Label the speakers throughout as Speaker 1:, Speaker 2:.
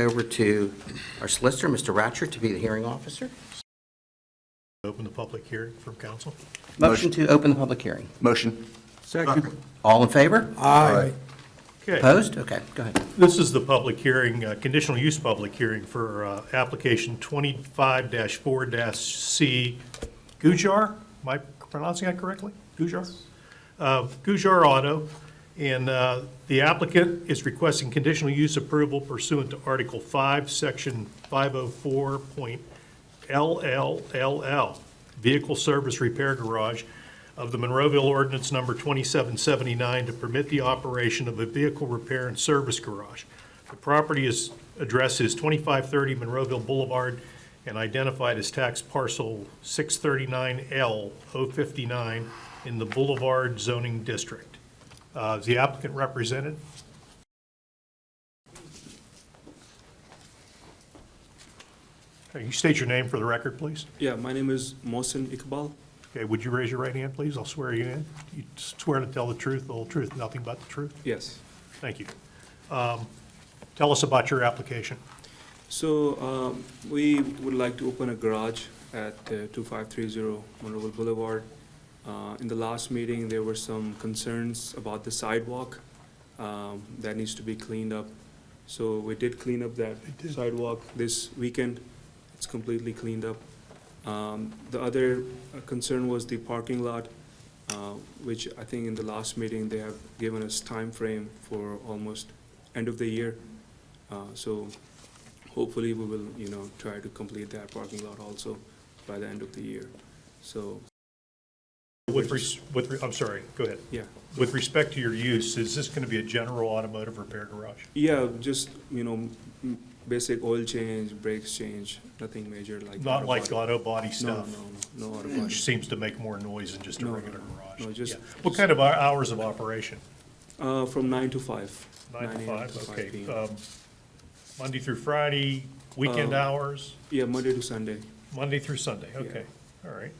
Speaker 1: Over to our solicitor, Mr. Ratcher, to be the hearing officer.
Speaker 2: Open the public hearing from council.
Speaker 1: Motion to open the public hearing.
Speaker 3: Motion.
Speaker 4: Second.
Speaker 1: All in favor?
Speaker 4: Aye.
Speaker 2: Okay,
Speaker 1: Opposed? Okay, go ahead.
Speaker 2: this is the public hearing, uh, conditional use public hearing for uh, application 25-4-C Gujar. Am I pronouncing that correctly? Gujar? Uh, Gujar Auto, and uh, the applicant is requesting conditional use approval pursuant to Article 5, Section 504.LLLL, Vehicle Service Repair Garage of the Monroeville Ordinance Number 2779 to permit the operation of a vehicle repair and service garage. The property is, address is 2530 Monroeville Boulevard and identified as tax parcel 639L059 in the Boulevard zoning district. Uh, Is the applicant represented? Okay, you state your name for the record, please.
Speaker 5: Yeah, my name is Mohsen Iqbal.
Speaker 2: Okay, would you raise your right hand, please? I'll swear you in. You swear to tell the truth, the whole truth, nothing but the truth?
Speaker 5: Yes.
Speaker 2: Thank you. Um, Tell us about your application.
Speaker 5: So um, we would like to open a garage at uh, 2530 Monroeville Boulevard. Uh, In the last meeting, there were some concerns about the sidewalk um, that needs to be cleaned up. So we did clean up that
Speaker 2: did.
Speaker 5: sidewalk this weekend. It's completely cleaned up. Um, The other uh, concern was the parking lot, uh, which I think in the last meeting, they have given us time frame for almost end of the year. Uh, So hopefully we will, you know, try to complete that parking lot also by the end of the year. So,
Speaker 2: With, res- with, re- I'm sorry, go ahead.
Speaker 5: yeah.
Speaker 2: With respect to your use, is this going to be a general automotive repair garage?
Speaker 5: Yeah, just, you know, m- basic oil change, brakes change, nothing major like.
Speaker 2: Not
Speaker 5: auto
Speaker 2: like
Speaker 5: body-
Speaker 2: auto body
Speaker 5: No,
Speaker 2: stuff,
Speaker 5: no, no, no auto body.
Speaker 2: which seems to make more noise than just a
Speaker 5: No, no,
Speaker 2: regular
Speaker 5: no,
Speaker 2: garage.
Speaker 5: no, just-
Speaker 2: Yeah. What kind of hou- hours of operation?
Speaker 5: Uh, from nine to five.
Speaker 2: Nine to
Speaker 5: 9 a.m.
Speaker 2: five, okay.
Speaker 5: 5 p.m.
Speaker 2: Um, Monday through Friday, weekend
Speaker 5: Um,
Speaker 2: hours,
Speaker 5: Yeah, Monday to Sunday.
Speaker 2: Monday through Sunday, okay, all right.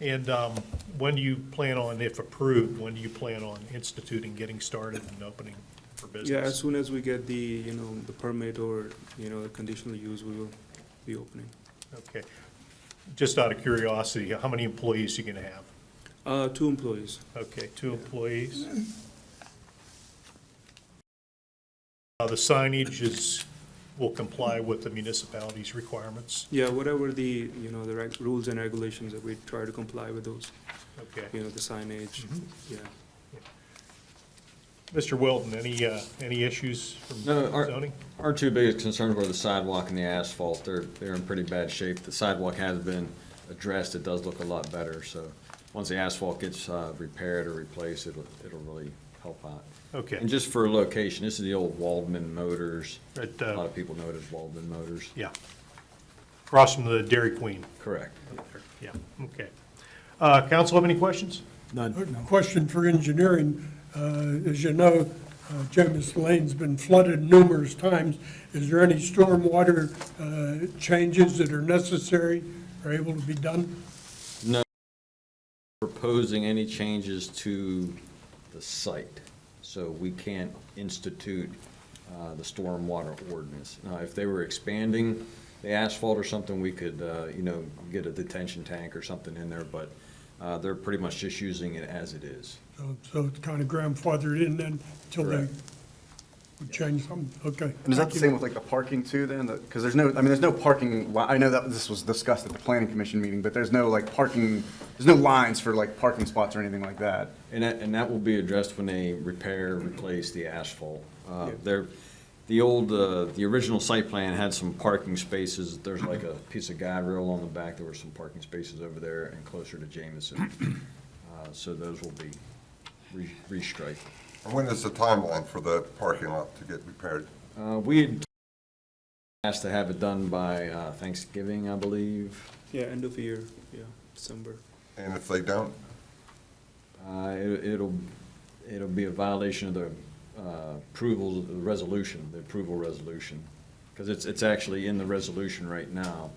Speaker 2: And um, when do you plan on, if approved, when do you plan on instituting, getting started and opening for
Speaker 5: Yeah, as
Speaker 2: business?
Speaker 5: soon as we get the, you know, the permit or, you know, the conditional use, we will be opening.
Speaker 2: Okay. Just out of curiosity, how many employees you gonna have?
Speaker 5: Uh, two employees.
Speaker 2: Okay, two employees. Uh, The signage is, will comply with the municipality's requirements?
Speaker 5: Yeah, whatever the, you know, the reg- rules and regulations that we try to comply with those,
Speaker 2: Okay.
Speaker 5: you know, the signage, yeah.
Speaker 2: Mr. Wilton, any, uh, any issues from
Speaker 4: No, our-
Speaker 2: zoning?
Speaker 4: Our two biggest concerns were the sidewalk and the asphalt. They're, they're in pretty bad shape. The sidewalk has been addressed. It does look a lot better, so once the asphalt gets uh, repaired or replaced, it'll, it'll really help out.
Speaker 2: Okay,
Speaker 4: And just for location, this is the old Waldman Motors.
Speaker 2: Right,
Speaker 4: A
Speaker 2: uh,
Speaker 4: lot of people know it as Waldman Motors.
Speaker 2: yeah. Across from the Dairy Queen,
Speaker 4: Correct.
Speaker 2: yeah, okay. Uh, Council have any questions?
Speaker 6: Question for engineering. Uh, As you know, uh, Jomis Lane's been flooded numerous times. Is there any stormwater uh, changes that are necessary or able to be done?
Speaker 4: Proposing any changes to the site, so we can't institute uh, the stormwater ordinance. Now, if they were expanding the asphalt or something, we could, uh, you know, get a detention tank or something in there, but uh, they're pretty much just using it as it is.
Speaker 6: So- So it's kind of grandfathered in then until they
Speaker 4: Correct.
Speaker 6: would change something? Okay.
Speaker 3: And is that
Speaker 6: thank
Speaker 3: the
Speaker 6: you.
Speaker 3: same with like the parking too then? Because there's no, I mean, there's no parking, li- I know that this was discussed at the planning commission meeting, but there's no like parking, there's no lines for like parking spots or anything like that.
Speaker 4: And that, and that will be addressed when they repair, replace the asphalt. Uh,
Speaker 3: Yeah.
Speaker 4: There, the old, uh, the original site plan had some parking spaces. There's like a piece of guide rail on the back. There were some parking spaces over there and closer to Jamison. Uh, So those will be re- restriped.
Speaker 7: When is the timeline for the parking lot to get repaired?
Speaker 4: Uh, We had asked to have it done by uh, Thanksgiving, I believe.
Speaker 5: Yeah, end of year, yeah, December.
Speaker 7: And if they don't,
Speaker 4: Uh, it- It'll, it'll be a violation of the uh, approval, the resolution, the approval resolution, because it's, it's actually in the resolution right now.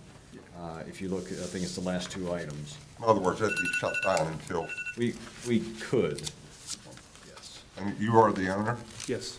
Speaker 4: Uh, If you look, I think it's the last two items.
Speaker 7: in other words, it'd be shut down until,
Speaker 4: We, we could, yes.
Speaker 7: and you are the owner?
Speaker 5: Yes,